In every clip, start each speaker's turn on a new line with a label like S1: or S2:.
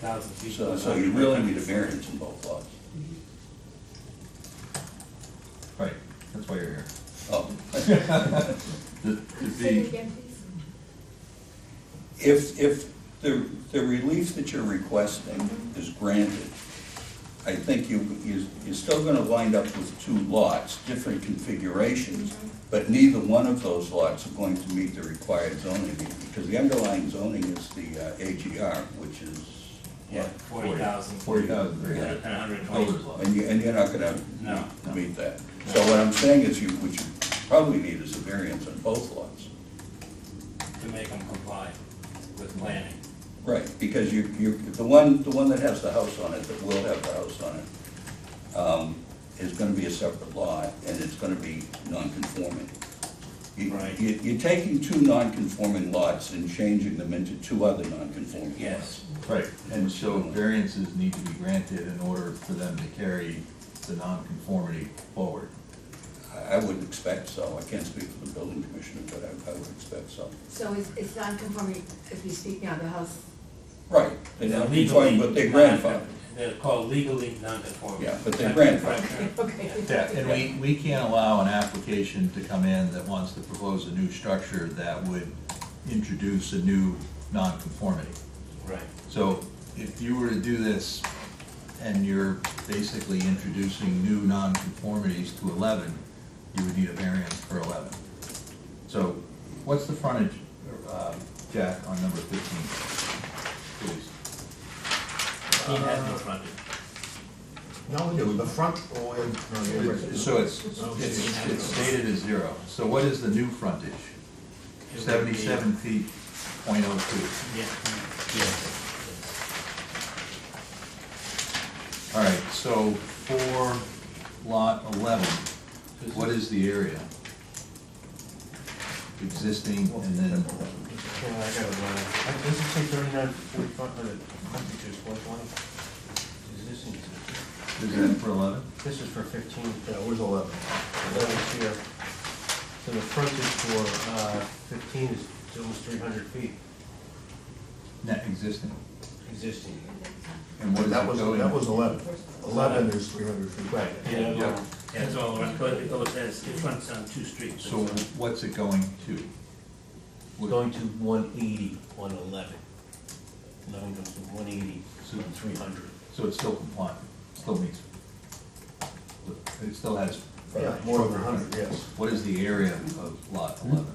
S1: thousand feet.
S2: So, so you really need a variance in both lots.
S3: Right, that's why you're here.
S2: Oh,
S3: The,
S4: Say it
S3: the,
S4: again, please.
S2: If, if the, the relief that you're requesting is granted, I think you, you- you're still gonna wind up with two lots, different configurations, but neither one of those lots are going to meet the required zoning, because the underlying zoning is the uh, AGR, which is,
S1: Yeah, forty thousand.
S3: forty thousand, three
S1: And
S3: hundred.
S1: a hundred and
S3: Builder's
S1: twenty.
S3: lot.
S2: and you, and you're not gonna
S1: No.
S2: meet that. So what I'm saying is you, what you probably need is a variance on both lots.
S1: to make them comply with planning.
S2: Right, because you, you, the one, the one that has the house on it, that will have the house on it, um, is gonna be a separate lot, and it's gonna be non-conforming. You-
S1: Right.
S2: You, you're taking two non-conforming lots and changing them into two other non-conforming lots.
S1: Yes,
S3: Right, and so variances need to be granted in order for them to carry the nonconformity forward.
S2: I, I would expect so, I can't speak for the building commissioner, but I, I would expect so.
S5: So it's, it's non-conforming as we speak now, the house,
S2: Right, they're
S1: They're
S2: not
S1: legally.
S2: conforming, but they're
S1: non-
S2: grandfathered.
S1: They're called legally non-conforming.
S2: Yeah, but they're
S1: That's the
S2: grandfathered.
S1: correct term.
S5: okay.
S3: Yeah, and we, we can't allow an application to come in that wants to propose a new structure that would introduce a new nonconformity.
S1: Right,
S3: So if you were to do this and you're basically introducing new nonconformities to eleven, you would need a variance for eleven. So what's the frontage, uh, Jack, on number fifteen, please?
S1: he has no frontage.
S6: No, no, the front or, no, the-
S3: So it's, it's, it's stated as zero. So what is the new frontage?
S1: It would be-
S3: Seventy-seven feet, point oh
S1: Yeah, yeah.
S3: two. All right, so for lot eleven, what is the area? Existing and then,
S6: Yeah, I got it, uh, I- does it say thirty-nine, forty-five, uh, hundred, hundred, one twenty? Is this, in-
S3: is that for eleven?
S6: this is for fifteen, yeah, where's eleven? Eleven's here. So the frontage for, uh, fifteen is almost three hundred feet
S3: Net existing.
S6: existing.
S3: And what is
S6: That
S3: it
S6: was,
S3: going?
S6: that was eleven. Eleven is three hundred feet. Right.
S1: Yeah,
S3: Yeah.
S1: well, that's all around, but it goes as, it runs on two streets.
S3: So what's it going to? What-
S6: Going to one eighty on eleven. Eleven goes to one eighty, so three hundred.
S3: So it's still compliant, still meets. It still has
S6: Yeah, more than hundred, yes.
S3: What is the area of lot eleven?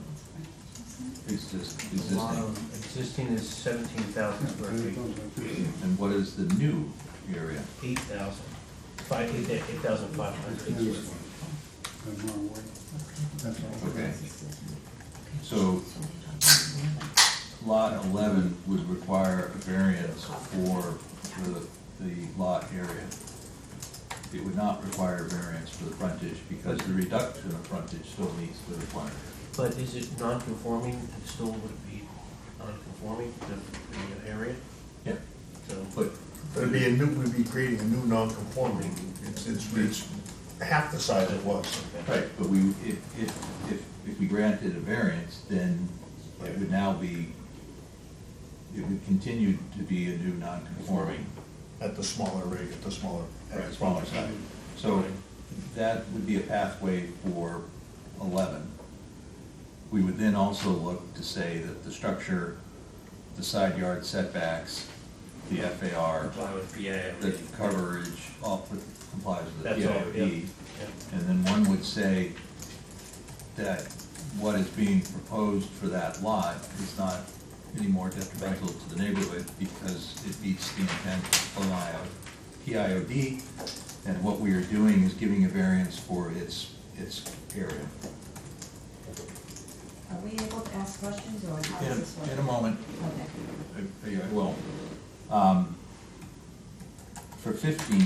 S3: Exist- Existing,
S6: Existing is seventeen thousand square feet,
S3: and what is the new area?
S6: eight thousand, five, eight, eight thousand five hundred.
S3: Okay. So lot eleven would require a variance for the, the lot area. It would not require a variance for the frontage because the reduction of frontage still meets the requirement.
S6: But is it non-conforming, it still would be non-conforming, the, the area,
S3: Yeah.
S6: so.
S3: But
S7: It'd be a new, we'd be creating a new non-conforming, it's, it's, it's half the size it was.
S3: Right, but we, if, if, if, if we granted a variance, then it would now be, it would continue to be a new non-conforming
S7: At the smaller rig, at the smaller.
S3: at the smaller side. So that would be a pathway for eleven. We would then also look to say that the structure, the side yard setbacks, the FAR,
S1: Comply with PA.
S3: the coverage, all complies with the
S6: That's all, yeah.
S3: PIOD. And then one would say that what is being proposed for that lot is not any more detrimental to the neighborhood because it meets the intent of the PIOD. And what we are doing is giving a variance for its, its area.
S8: Are we able to ask questions or how
S3: In
S8: does this
S3: a,
S8: work?
S3: in a moment,
S8: Okay.
S3: I- I will. Um, For fifteen,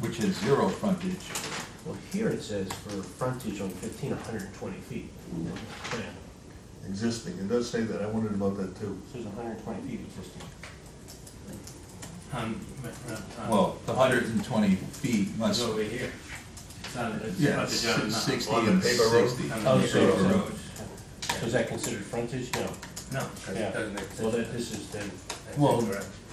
S3: which has zero frontage,
S6: Well, here it says for frontage on fifteen, hundred and twenty feet. Yeah,
S7: Existing, it does say that, I wondered about that too.
S6: It says hundred and twenty feet existing.
S1: Um, uh, uh,
S3: well, the hundred and twenty feet
S1: It's
S3: must
S1: over here. It's on, it's
S3: Yeah,
S1: not the John uh, Knox.
S3: si- sixty
S7: On the
S3: and
S7: paper road?
S3: sixty.
S1: On
S6: Oh,
S1: the
S6: so-
S1: paper
S6: so-
S1: road.
S6: So is that considered frontage? No.
S1: No, 'cause
S6: Yeah.
S1: it doesn't
S6: Well,
S1: exist.
S6: that, this is then,
S1: That's
S9: Well,
S1: incorrect.